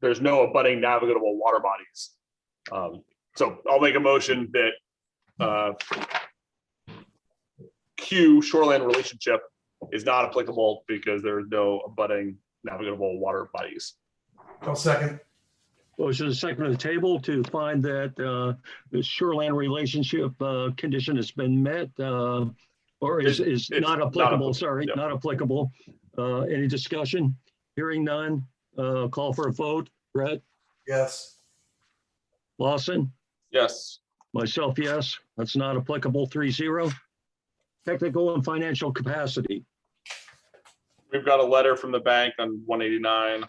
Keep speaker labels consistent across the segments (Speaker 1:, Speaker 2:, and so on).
Speaker 1: there's no abutting navigable water bodies. Um, so I'll make a motion that, uh, Q shoreline relationship is not applicable because there are no abutting navigable water bodies.
Speaker 2: I'll second.
Speaker 3: Motion is second on the table to find that uh, the shoreline relationship uh, condition has been met uh, or is, is
Speaker 1: It's- it's
Speaker 3: not
Speaker 1: not
Speaker 3: applicable,
Speaker 1: applicable,
Speaker 3: sorry,
Speaker 1: yeah.
Speaker 3: not applicable. Uh, Any discussion? Hearing none, uh, call for a vote. Brett,
Speaker 2: Yes.
Speaker 3: Lawson,
Speaker 1: Yes.
Speaker 3: myself, yes, that's not applicable, three zero. Technical and financial capacity,
Speaker 1: We've got a letter from the bank on one eighty-nine.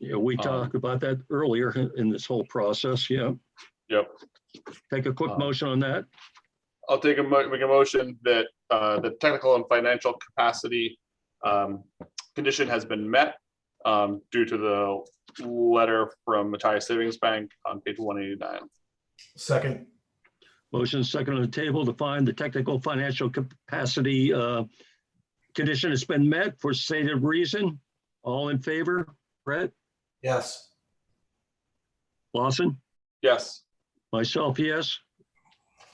Speaker 3: Yeah, we
Speaker 1: Um,
Speaker 3: talked about that earlier in this whole process, yeah.
Speaker 1: Yep.
Speaker 3: Take a quick
Speaker 1: Uh,
Speaker 3: motion on that.
Speaker 1: I'll take a mo- make a motion that, uh, the technical and financial capacity, um, condition has been met. Um, due to the letter from Matthias Savings Bank on page one eighty-nine.
Speaker 2: Second.
Speaker 3: Motion is second on the table to find the technical financial capacity uh, condition has been met for stated reason. All in favor, Brett,
Speaker 2: Yes.
Speaker 3: Lawson,
Speaker 1: Yes.
Speaker 3: myself, yes.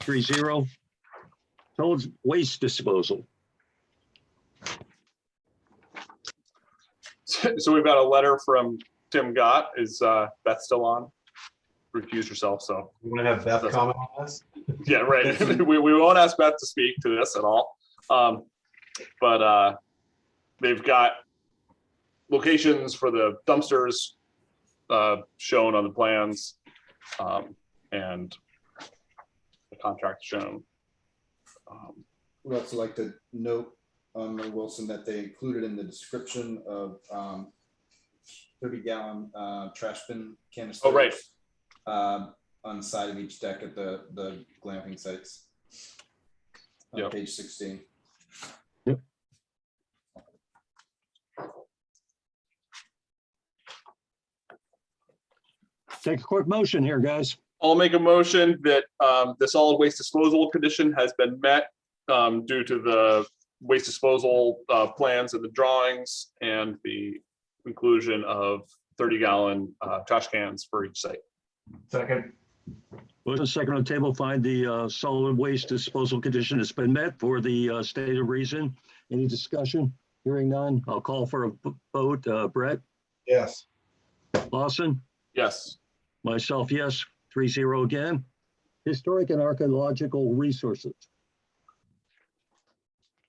Speaker 3: Three zero. Solid waste disposal.
Speaker 1: So we've got a letter from Tim Gott. Is uh, Beth still on? Refuse yourself, so,
Speaker 4: You want to have Beth comment on this?
Speaker 1: yeah, right. We, we won't ask Beth to speak to this at all. Um, But uh, they've got locations for the dumpsters uh, shown on the plans um, and the contract shown. Um,
Speaker 5: We'd also like to note, um, Mayor Wilson, that they included in the description of, um, thirty gallon, uh, trash bin canisters.
Speaker 1: Oh, right.
Speaker 5: Um, on the side of each deck at the, the glamping sites.
Speaker 1: Yep.
Speaker 5: On page sixteen.
Speaker 3: Take a quick motion here, guys.
Speaker 1: I'll make a motion that um, the solid waste disposal condition has been met um, due to the waste disposal uh, plans and the drawings and the inclusion of 30 gallon uh, trash cans for each site.
Speaker 2: Second.
Speaker 3: Motion is second on the table, find the uh, solid waste disposal condition has been met for the uh, stated reason. Any discussion? Hearing none, I'll call for a vote. Uh, Brett,
Speaker 4: Yes.
Speaker 3: Lawson?
Speaker 1: Yes,
Speaker 3: Myself, yes, three zero again. Historic and archaeological resources.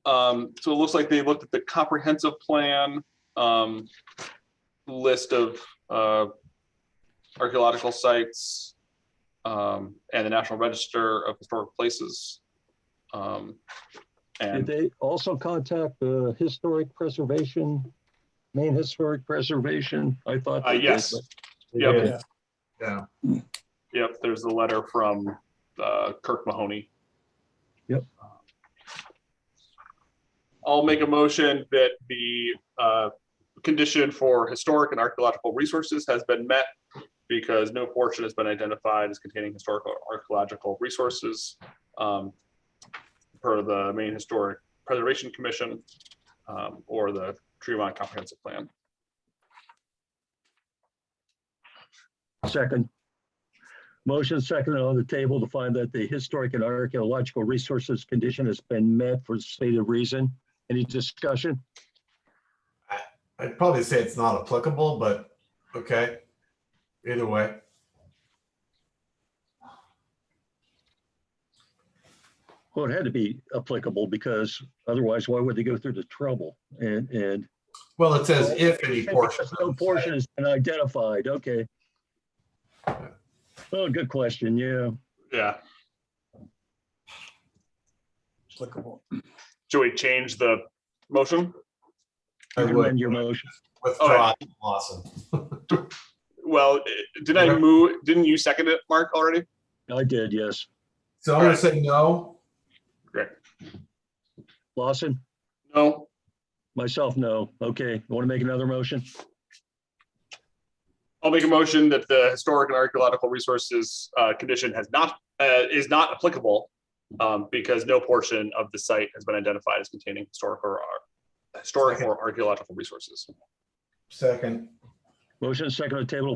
Speaker 1: Um, so it looks like they looked at the comprehensive plan um, list of uh, archaeological sites um, and the National Register of Historic Places. Um,
Speaker 3: Did
Speaker 1: And
Speaker 3: they also contact the historic preservation, Maine Historic Preservation? I thought.
Speaker 1: Uh,
Speaker 3: they did,
Speaker 1: yes.
Speaker 3: but-
Speaker 1: Yep.
Speaker 3: Okay.
Speaker 1: Yep, there's a letter from uh, Kirk Mahoney.
Speaker 3: Yep.
Speaker 1: I'll make a motion that the uh, condition for historic and archaeological resources has been met because no portion has been identified as containing historical or archaeological resources um, per the Maine Historic Preservation Commission um, or the Tremont Comprehensive Plan.
Speaker 3: Second. Motion second on the table to find that the historic and archaeological resources condition has been met for stated reason. Any discussion?
Speaker 2: I'd probably say it's not applicable, but okay. Either way.
Speaker 3: Well, it had to be applicable because otherwise why would they go through the trouble and, and
Speaker 2: Well, it says if any portion. of
Speaker 3: No
Speaker 2: the
Speaker 3: portion has been identified, okay. Oh, good question, yeah.
Speaker 1: Yeah,
Speaker 6: applicable.
Speaker 1: should we change the motion?
Speaker 2: I would.
Speaker 3: Recommend your motion.
Speaker 2: Withdraw, Lawson.
Speaker 1: Well, eh, did I
Speaker 2: Okay.
Speaker 1: move, didn't you second it, Mark, already?
Speaker 3: I did, yes.
Speaker 2: So I'm gonna say no.
Speaker 3: Lawson,
Speaker 1: No,
Speaker 3: myself, no. Okay, want to make another motion?
Speaker 1: I'll make a motion that the historic and archaeological resources uh, condition has not, uh, is not applicable um, because no portion of the site has been identified as containing historic or uh, ar- historic or archaeological resources.
Speaker 2: Second.
Speaker 3: Motion second on the table